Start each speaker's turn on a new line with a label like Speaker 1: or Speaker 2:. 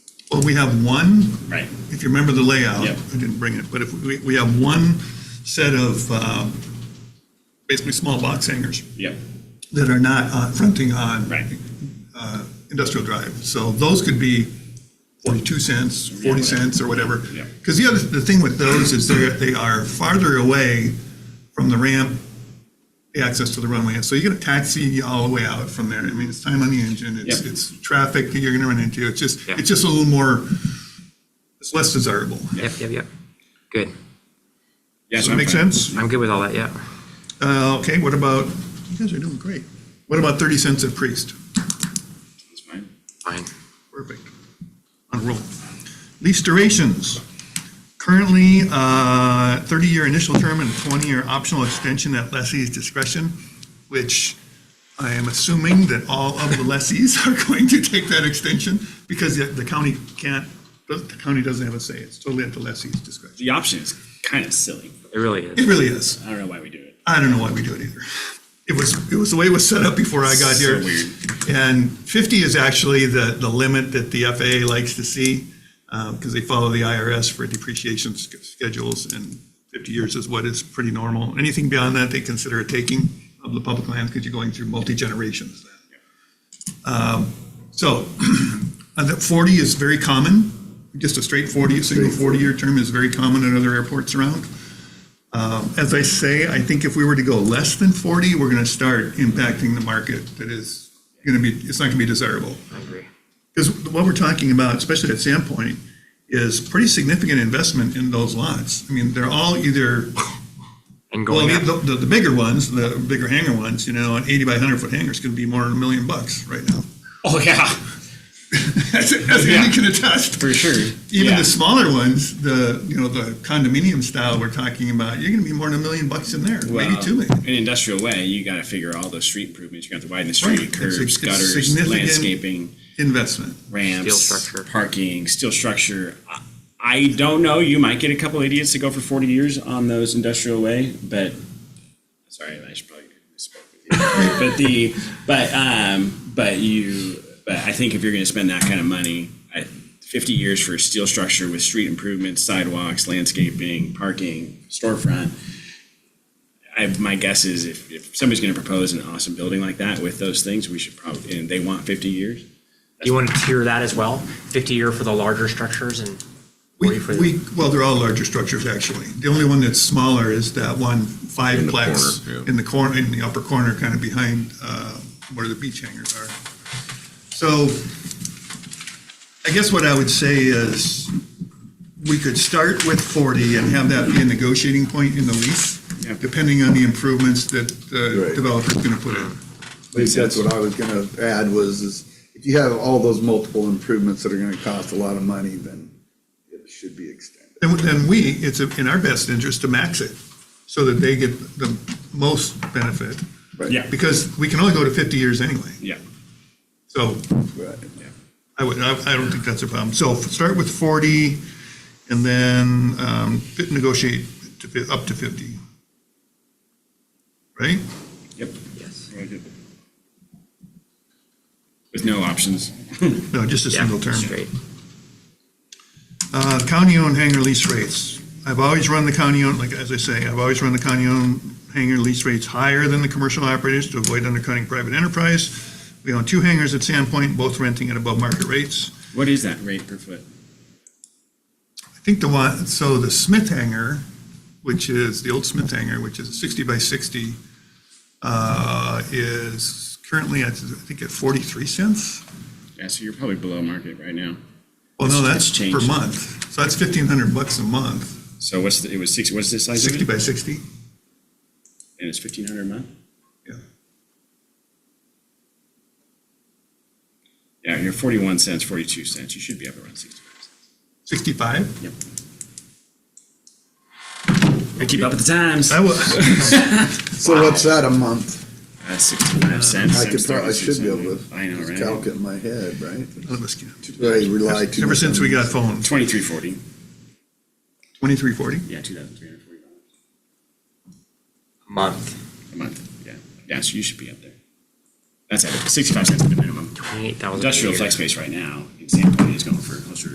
Speaker 1: Well, we have one,
Speaker 2: Right.
Speaker 1: if you remember the layout,
Speaker 2: Yep.
Speaker 1: I didn't bring it, but if, we, we have one set of, uh, basically small box hangers
Speaker 2: Yep.
Speaker 1: that are not uh, fronting on
Speaker 2: Right.
Speaker 1: uh, industrial drive. So those could be 42 cents, 40
Speaker 2: whatever.
Speaker 1: cents or whatever.
Speaker 2: Yeah.
Speaker 1: Because the other, the thing with those is they're, they are farther away from the ramp, the access to the runway. And so you get a taxi all the way out from there. I mean, it's time on the engine, it's,
Speaker 2: Yeah.
Speaker 1: it's traffic that you're going to run into. It's just,
Speaker 3: Yeah.
Speaker 1: it's just a little more, it's less desirable.
Speaker 3: Yep, yep, yep. Good.
Speaker 2: Yeah,
Speaker 1: Does
Speaker 2: so
Speaker 1: that
Speaker 2: I'm
Speaker 1: make
Speaker 2: fine.
Speaker 1: sense?
Speaker 3: I'm good with all that, yeah.
Speaker 1: Uh, Okay, what about, you guys are doing great. What about 30 cents a priest?
Speaker 2: That's fine.
Speaker 3: Fine.
Speaker 1: Perfect. On a roll. Lease durations. Currently, uh, 30-year initial term and 20-year optional extension at lessee's discretion, which I am assuming that all of the lessees are going to take that extension because the- the county can't, the county doesn't have a say. It's totally at the lessee's discretion.
Speaker 2: The option is kind of silly.
Speaker 3: It really
Speaker 1: It
Speaker 3: is.
Speaker 1: really is.
Speaker 2: I don't know why we do it.
Speaker 1: I don't know why we do it either. It was, it was the way it was set up before I got
Speaker 2: So
Speaker 1: here.
Speaker 2: weird.
Speaker 1: And 50 is actually the, the limit that the FAA likes to see, because they follow the IRS for depreciation sch- schedules, and 50 years is what is pretty normal. Anything beyond that, they consider a taking of the public land, because you're going through multi-generations. Um, So, uh, that 40 is very common, just a straight 40, a single 40-year term is very common at other airports around. As I say, I think if we were to go less than 40, we're going to start impacting the market that is going to be, it's not going to be desirable.
Speaker 3: I agree.
Speaker 1: Because what we're talking about, especially at Sandpoint, is pretty significant investment in those lots. I mean, they're all either,
Speaker 3: And
Speaker 1: well,
Speaker 3: going up,
Speaker 1: the, the- the bigger ones, the bigger hangar ones, you know, an 80 by 100 foot hangar is going to be more than a million bucks right now.
Speaker 2: Oh, yeah,
Speaker 1: As as Andy
Speaker 2: Yeah.
Speaker 1: can attest.
Speaker 2: for sure.
Speaker 1: Even
Speaker 2: yeah.
Speaker 1: the smaller ones, the, you know, the condominium style we're talking about, you're going to be more than a million bucks in there, maybe
Speaker 2: Well,
Speaker 1: two million.
Speaker 2: In an industrial way, you got to figure all those street improvements. You got to widen the street,
Speaker 1: Right. It's a-
Speaker 2: curbs,
Speaker 1: it's
Speaker 2: gutters,
Speaker 1: significant-
Speaker 2: landscaping,
Speaker 1: Investment.
Speaker 2: ramps,
Speaker 3: structure.
Speaker 2: parking, steel structure. I, I don't know. You might get a couple idiots to go for 40 years on those industrial way, but sorry, I should probably spoke with you. but the but um but you but I think if you're going to spend that kind of money, I, 50 years for a steel structure with street improvements, sidewalks, landscaping, parking, storefront. I, my guess is if, if somebody's going to propose an awesome building like that with those things, we should probably, and they want 50 years.
Speaker 3: you want to tier that as well? Fifty year for the larger structures and forty
Speaker 1: We,
Speaker 3: for the.
Speaker 1: we, well, they're all larger structures, actually. The only one that's smaller is that one
Speaker 4: In the
Speaker 1: fiveplex
Speaker 4: corner, yeah.
Speaker 1: in the corner, in the upper corner, kind of behind uh, where the beach hangers are. So I guess what I would say is we could start with 40 and have that be a negotiating point in the lease,
Speaker 2: Yeah.
Speaker 1: depending on the improvements that the
Speaker 5: Right.
Speaker 1: developer's going to put in.
Speaker 5: I think that's what I was gonna add was, is if you have all those multiple improvements that are gonna cost a lot of money, then it should be extended.
Speaker 1: Then, then we, it's in our best interest to max it so that they get the most benefit.
Speaker 5: Right.
Speaker 2: Yeah.
Speaker 1: Because we can only go to 50 years anyway.
Speaker 2: Yeah.
Speaker 1: So
Speaker 5: Right.
Speaker 1: I would, I I don't think that's a problem. So start with 40 and then um, fit- negotiate to fi- up to 50. Right?
Speaker 2: Yep.
Speaker 3: Yes.
Speaker 2: With no options.
Speaker 1: No, just a
Speaker 3: Yeah,
Speaker 1: single term.
Speaker 3: Straight.
Speaker 1: Uh, County-owned hangar lease rates. I've always run the county-owned, like, as I say, I've always run the county-owned hangar lease rates higher than the commercial operators to avoid undercutting private enterprise. We own two hangars at Sandpoint, both renting at above market rates.
Speaker 2: What is that rate per foot?
Speaker 1: I think the one, so the Smith hangar, which is, the old Smith hangar, which is 60 by 60, uh, is currently, at, I think, at 43 cents?
Speaker 2: Yeah, so you're probably below market right now.
Speaker 1: Well, no,
Speaker 2: It's-
Speaker 1: that's
Speaker 2: it's
Speaker 1: per
Speaker 2: changed.
Speaker 1: month. So that's 1,500 bucks a month,
Speaker 2: So what's the, it was six, what's this size of
Speaker 1: 60
Speaker 2: it?
Speaker 1: by 60.
Speaker 2: And it's fifteen hundred a month?
Speaker 1: Yeah.
Speaker 2: Yeah, you're forty-one cents, forty-two cents. You should be up around sixty-five cents.
Speaker 1: 65?
Speaker 2: Yep. I keep up with the times.
Speaker 1: I was,
Speaker 5: So what's that a month?
Speaker 2: That's Uh, sixty-five cents.
Speaker 5: I
Speaker 2: times
Speaker 5: could probably, I should be
Speaker 2: 32
Speaker 5: able
Speaker 2: cents.
Speaker 5: to
Speaker 2: I
Speaker 5: just
Speaker 2: know,
Speaker 5: calc
Speaker 2: right?
Speaker 5: it in my head, right?
Speaker 1: None of us can.
Speaker 5: I rely too
Speaker 1: Ever
Speaker 5: much
Speaker 1: since
Speaker 5: on
Speaker 1: we got
Speaker 5: these.
Speaker 1: phones,
Speaker 2: Twenty-three forty.
Speaker 1: 2340.
Speaker 2: Yeah, two thousand three hundred forty dollars
Speaker 3: Month,
Speaker 2: a month. Yeah. Yeah, so you should be up there. That's at sixty-five cents at the minimum.
Speaker 3: twenty-eight thousand.
Speaker 2: Industrial flex space right now, in San Antonio is going for closer to